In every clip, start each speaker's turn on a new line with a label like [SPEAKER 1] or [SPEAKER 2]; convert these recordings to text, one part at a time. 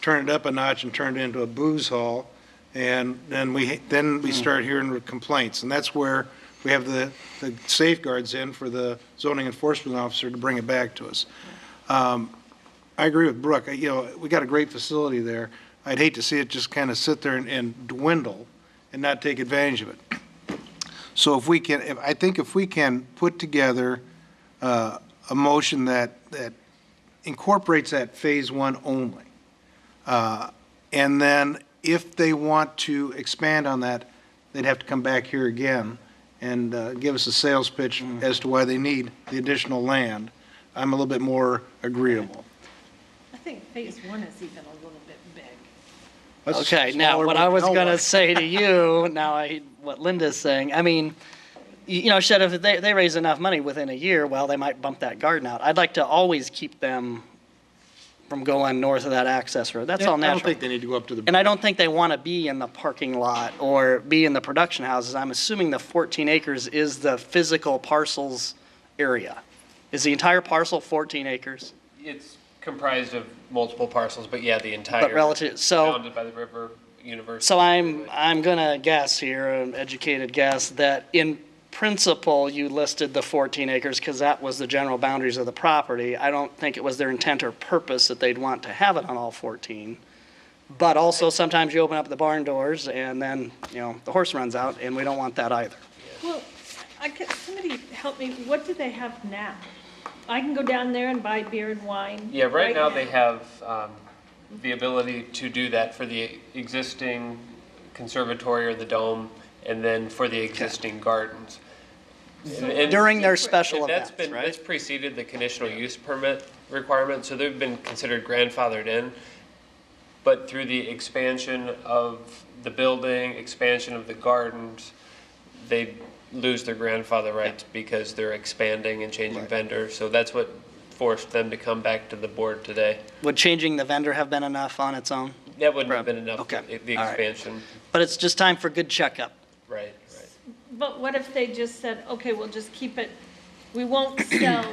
[SPEAKER 1] turn it up a notch and turn it into a booze hall. And then we, then we start hearing complaints. And that's where we have the, the safeguards in for the zoning enforcement officer to bring it back to us. Um, I agree with Brooke. I- You know, we got a great facility there. I'd hate to see it just kind of sit there and- and dwindle and not take advantage of it. So if we can, if, I think if we can put together uh, a motion that, that incorporates that Phase One only, uh, and then if they want to expand on that, they'd have to come back here again and uh, give us a sales pitch as to why they need the additional land, I'm a little bit more agreeable.
[SPEAKER 2] I think phase one is even a little bit big.
[SPEAKER 1] That's a
[SPEAKER 3] Okay, now,
[SPEAKER 1] smaller
[SPEAKER 3] what I was
[SPEAKER 1] hotel
[SPEAKER 3] going to
[SPEAKER 1] lot.
[SPEAKER 3] say to you, now I, what Linda's saying, I mean, y- you know, shit, if they, they raise enough money within a year, well, they might bump that garden out. I'd like to always keep them from going north of that access road. That's all
[SPEAKER 1] I don't
[SPEAKER 3] natural.
[SPEAKER 1] think they need to go up to the.
[SPEAKER 3] And I don't think they want to be in the parking lot or be in the production houses. I'm assuming the 14 acres is the physical parcels area. Is the entire parcel 14 acres?
[SPEAKER 4] It's comprised of multiple parcels, but yeah, the entire.
[SPEAKER 3] But relative, so.
[SPEAKER 4] Bounded by the river, university.
[SPEAKER 3] So I'm, I'm gonna guess here, an educated guess, that in principle, you listed the 14 acres because that was the general boundaries of the property. I don't think it was their intent or purpose that they'd want to have it on all 14. But also, sometimes you open up the barn doors and then, you know, the horse runs out, and we don't want that either.
[SPEAKER 2] Well, I could, somebody help me, what do they have now? I can go down there and buy beer and wine.
[SPEAKER 4] Yeah, right now they have um, the ability to do that for the existing conservatory or the dome, and then for the existing gardens. And- and-
[SPEAKER 3] During their
[SPEAKER 4] and
[SPEAKER 3] special events,
[SPEAKER 4] that's been-
[SPEAKER 3] right?
[SPEAKER 4] That's preceded the conditional use permit requirement, so they've been considered grandfathered in. But through the expansion of the building, expansion of the gardens, they lose their grandfather rights because they're expanding and changing vendors. So that's what forced them to come back to the board today.
[SPEAKER 3] Would changing the vendor have been enough on its own?
[SPEAKER 4] That wouldn't have
[SPEAKER 3] Prob-
[SPEAKER 4] been enough,
[SPEAKER 3] okay,
[SPEAKER 4] the the
[SPEAKER 3] all right.
[SPEAKER 4] expansion,
[SPEAKER 3] But it's just time for good checkup.
[SPEAKER 4] right, right.
[SPEAKER 2] But what if they just said, okay, we'll just keep it, we won't sell,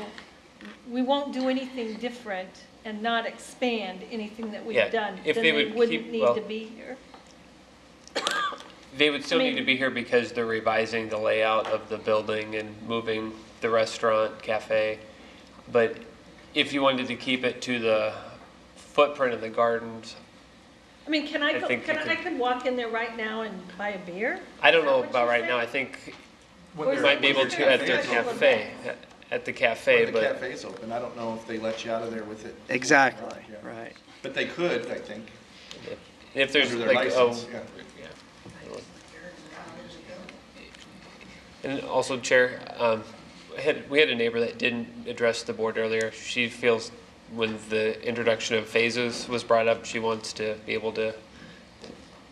[SPEAKER 2] we won't do anything different and not expand anything that
[SPEAKER 4] Yeah,
[SPEAKER 2] we've done?
[SPEAKER 4] if
[SPEAKER 2] Then
[SPEAKER 4] they
[SPEAKER 2] they
[SPEAKER 4] would
[SPEAKER 2] wouldn't
[SPEAKER 4] keep-
[SPEAKER 2] need
[SPEAKER 4] well-
[SPEAKER 2] to be here.
[SPEAKER 4] They would still need to
[SPEAKER 2] Maybe.
[SPEAKER 4] be here because they're revising the layout of the building and moving the restaurant, cafe. But if you wanted to keep it to the footprint of the gardens,
[SPEAKER 2] I mean, can I,
[SPEAKER 4] I
[SPEAKER 2] go?
[SPEAKER 4] think
[SPEAKER 2] can
[SPEAKER 4] you
[SPEAKER 2] I, I
[SPEAKER 4] could-
[SPEAKER 2] could walk in there right now and buy a beer?
[SPEAKER 4] I don't know
[SPEAKER 2] Is that what
[SPEAKER 4] about
[SPEAKER 2] you
[SPEAKER 4] right now, I
[SPEAKER 2] said?
[SPEAKER 4] think
[SPEAKER 2] Or
[SPEAKER 4] we
[SPEAKER 2] is
[SPEAKER 4] might
[SPEAKER 2] it
[SPEAKER 4] be able
[SPEAKER 2] just
[SPEAKER 4] to at their
[SPEAKER 2] special
[SPEAKER 4] cafe,
[SPEAKER 2] event?
[SPEAKER 4] at the cafe,
[SPEAKER 5] When the
[SPEAKER 4] but
[SPEAKER 5] cafe's open, I don't know if they let you out of there with it.
[SPEAKER 3] Exactly,
[SPEAKER 5] Yeah.
[SPEAKER 3] right.
[SPEAKER 5] But they could, I think,
[SPEAKER 4] if there's
[SPEAKER 5] under their
[SPEAKER 4] like, oh,
[SPEAKER 5] license, yeah.
[SPEAKER 4] And also, Chair, um, I had, we had a neighbor that didn't address the board earlier. She feels when the introduction of phases was brought up, she wants to be able to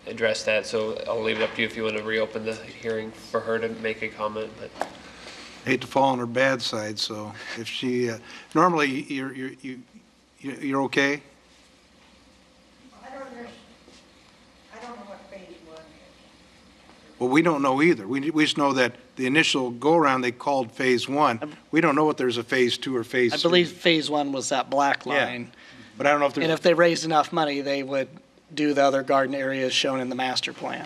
[SPEAKER 4] address that. So I'll leave it up to you if you want to reopen the hearing for her to make a comment, but.
[SPEAKER 1] hate to fall on her bad side, so if she, uh, normally, you're, you're, you- you- you're okay?
[SPEAKER 6] I don't know, I don't know what phase one is.
[SPEAKER 1] Well, we don't know either. We, we just know that the initial go-around, they called Phase One. We don't know if there's a Phase Two or Phase
[SPEAKER 3] I
[SPEAKER 1] Three.
[SPEAKER 3] believe phase one was that black
[SPEAKER 1] Yeah.
[SPEAKER 3] line.
[SPEAKER 1] But I don't know if
[SPEAKER 3] And if
[SPEAKER 1] there's,
[SPEAKER 3] they raised enough money, they would do the other garden areas shown in the master plan.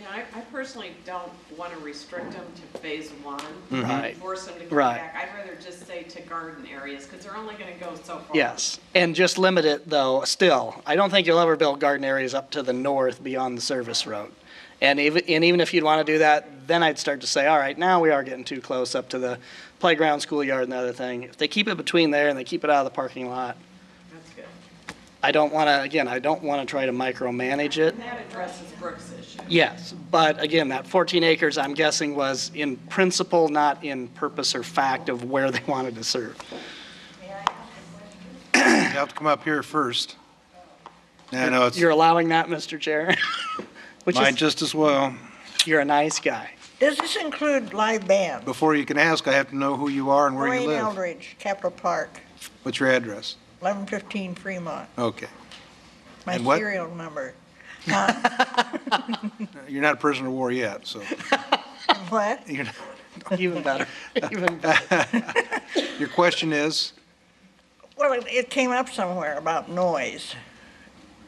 [SPEAKER 7] Yeah, I, I personally don't want to restrict them to phase one.
[SPEAKER 3] Right.
[SPEAKER 7] Force them to come
[SPEAKER 3] Mm-hmm. Right.
[SPEAKER 7] back. I'd rather just say to garden areas, because they're only going to go so far.
[SPEAKER 3] Yes, and just limit it though, still. I don't think you'll ever build garden areas up to the north beyond the service road. And even, and even if you'd want to do that, then I'd start to say, all right, now we are getting too close up to the playground, schoolyard and the other thing. If they keep it between there and they keep it out of the parking lot,
[SPEAKER 7] That's good.
[SPEAKER 3] I don't want to, again, I don't want to try to micromanage it.
[SPEAKER 7] And that addresses Brooks' issue.
[SPEAKER 3] Yes, but again, that 14 acres, I'm guessing, was in principle, not in purpose or fact of where they wanted to serve.
[SPEAKER 1] you have to come up here first. I know, it's,
[SPEAKER 3] You're allowing that, Mr. Chair? Which
[SPEAKER 1] might
[SPEAKER 3] is,
[SPEAKER 1] just as well.
[SPEAKER 3] you're a nice guy.
[SPEAKER 6] Does this include live band?
[SPEAKER 1] Before you can ask, I have to know who you are and where you
[SPEAKER 6] Wayne
[SPEAKER 1] live.
[SPEAKER 6] Eldridge, Capitol Park,
[SPEAKER 1] What's your address?
[SPEAKER 6] 1115 Fremont,
[SPEAKER 1] Okay.
[SPEAKER 6] my
[SPEAKER 1] And what-
[SPEAKER 6] serial number.
[SPEAKER 1] You're not a prisoner of war yet, so
[SPEAKER 6] What?
[SPEAKER 1] you're,
[SPEAKER 3] Even better, even better.
[SPEAKER 1] your question is?
[SPEAKER 6] Well, it- it came up somewhere about noise.